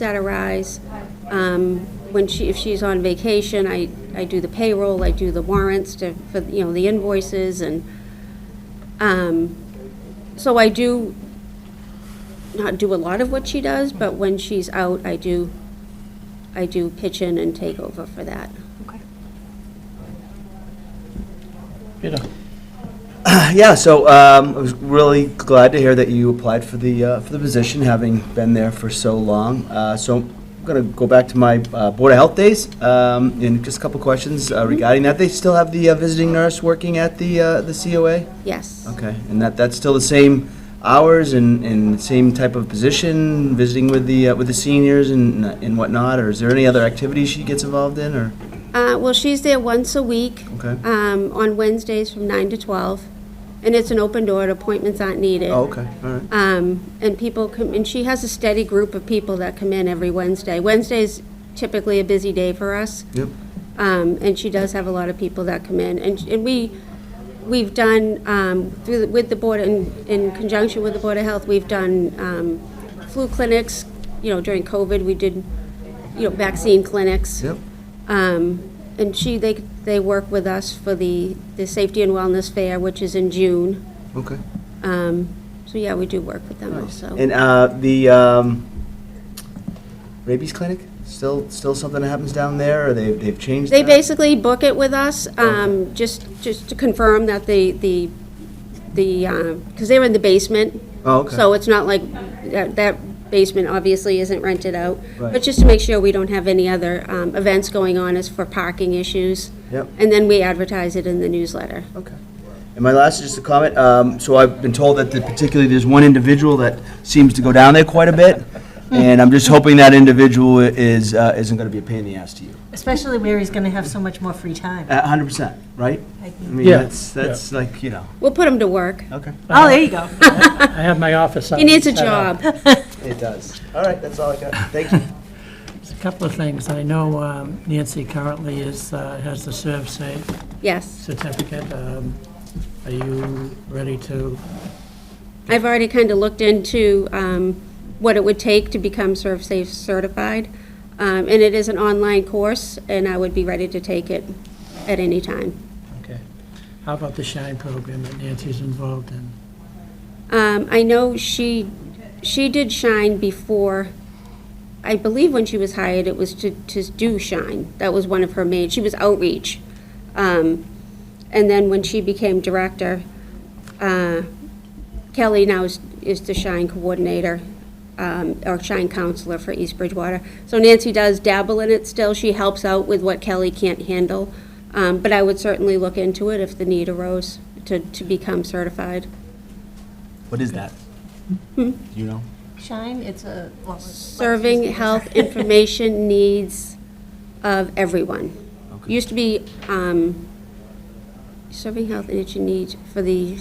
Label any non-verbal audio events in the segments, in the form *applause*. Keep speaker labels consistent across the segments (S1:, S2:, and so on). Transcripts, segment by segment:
S1: that arise. Um, When she, if she's on vacation, I, I do the payroll, I do the warrants to, for, you know, the invoices and, um, so I do not do a lot of what she does, but when she's out, I do, I do pitch in and take over for that.
S2: Peter?
S3: Yeah, so um, I was really glad to hear that you applied for the, uh, for the position, having been there for so long. Uh, So I'm going to go back to my uh, Board of Health days, um, and just a couple questions uh, regarding that. They still have the uh, visiting nurse working at the, uh, the COA?
S1: Yes.
S3: Okay, and that, that's still the same hours and, and same type of position, visiting with the, uh, with the seniors and and whatnot? Or is there any other activities she gets involved in, or,
S1: Uh, well, she's there once a week.
S3: okay?
S1: um, on Wednesdays from 9 to 12, and it's an open door, appointments aren't needed.
S3: Oh, okay, all right.
S1: Um, And people come, and she has a steady group of people that come in every Wednesday. Wednesday's typically a busy day for us,
S3: Yep,
S1: um, and she does have a lot of people that come in. And and we, we've done, um, through, the- with the Board, in in conjunction with the Board of Health, we've done um, flu clinics, you know, during COVID, we did, you know, vaccine clinics.
S3: yep.
S1: Um, And she, they, they work with us for the, the Safety and Wellness Fair, which is in June.
S3: Okay.
S1: Um, So, yeah, we do work with them also.
S3: And uh, the um, rabies clinic still still something that happens down there, or they've they've changed.
S1: They
S3: that?
S1: basically book it with us,
S3: Oh.
S1: um, just, just to confirm that the, the, the, because they're in the basement.
S3: Oh, okay.
S1: So it's not like, that that basement obviously isn't rented out.
S3: Right.
S1: But just to make sure we don't have any other um, events going on as for parking issues.
S3: Yep.
S1: And then we advertise it in the newsletter.
S3: Okay. And my last is just a comment. Um, so I've been told that the, particularly there's one individual that seems to go down there quite a bit, and I'm just hoping that individual is uh, isn't going to be a pain in the ass to you.
S4: Especially where he's going to have so much more free time.
S3: A hundred percent, right?
S4: I
S3: I
S4: think.
S3: mean,
S2: Yeah.
S3: that's that's like you know.
S1: We'll put them to work.
S3: Okay.
S4: Oh, there you go.
S2: I have my office.
S1: He needs a job.
S3: *laughs* It does. All right. That's all I got. Thank you.
S2: A couple of things. I know um, Nancy currently is, uh, has the serve safe
S1: Yes,
S2: certificate. Um, Are you ready to,
S1: I've already kind of looked into um, what it would take to become ServSafe certified, Um, and it is an online course, and I would be ready to take it at any time.
S2: okay. How about the shine program that Nancy's involved in?
S1: Um, I know she, she did Shine before, I believe when she was hired, it was to, to do Shine. That was one of her main, she was outreach. Um, And then when she became director, uh, Kelly now is, is the Shine coordinator, um, or Shine counselor for East Bridgewater. So Nancy does dabble in it still, she helps out with what Kelly can't handle. Um, But I would certainly look into it if the need arose to, to become certified.
S3: *laughs* What is that? Do you know?
S4: Shine, it's a. well, it's-
S1: serving health information *laughs* needs of everyone.
S3: Okay.
S1: Used to be um, serving health information needs for the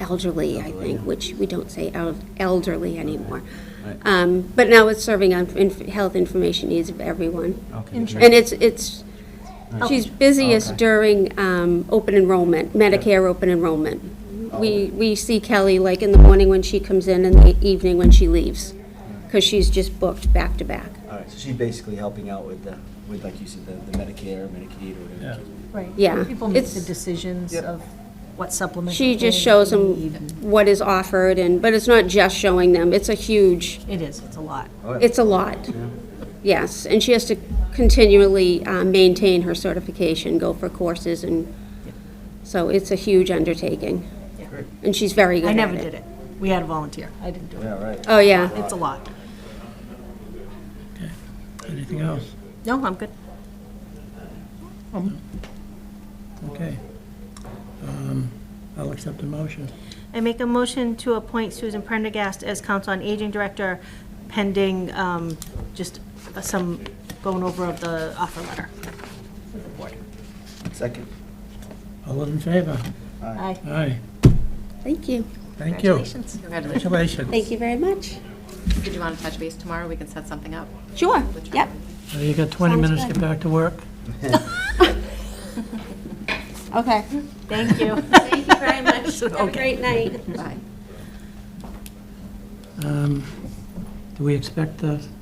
S1: elderly, I think, which we don't say el- elderly anymore.
S3: Right.
S1: Um, But now it's serving on inf- health information needs of everyone.
S3: Okay.
S1: And it's, it's, she's busiest
S3: Okay.
S1: during um, open enrollment, Medicare open enrollment. We, we see Kelly like in the morning when she comes in and the evening when she leaves, because she's just booked back to back.
S3: All right. So she's basically helping out with the with like you said the, the Medicare, Medicaid, or whatever.
S2: Yeah.
S4: Right.
S1: Yeah.
S4: People make the
S1: It's-
S4: decisions
S3: Yep.
S4: of what supplement.
S1: She
S4: they
S1: just shows
S4: need.
S1: them what is offered and, but it's not just showing them, it's a huge,
S4: It is, it's a lot.
S1: it's a lot. Yes, and she has to continually uh, maintain her certification, go for courses and, so it's a huge undertaking.
S4: Yeah.
S1: And she's very good
S4: I
S1: at
S4: never did it. We had a volunteer. I didn't do it.
S3: Yeah, right.
S1: Oh, yeah.
S4: It's a lot.
S2: Anything else?
S4: No, I'm good.
S2: Okay. Um, I'll accept the motion.
S5: I make a motion to appoint Susan Prendergast as Council on Aging Director pending um, just some going over of the offer letter.
S3: Second.
S2: All those in favor?
S4: Aye.
S2: Aye.
S1: Thank you.
S2: Thank you.
S6: Congratulations. Congratulations.
S2: Congratulations.
S1: Thank you very much.
S6: Did you want to touch base tomorrow? We can set something up.
S1: Sure, yep.
S2: Well, You got 20 minutes to get back to work.
S1: Okay.
S5: Thank you.
S1: Thank you very much. Have a great night.
S6: Bye.
S2: Um, Do we expect the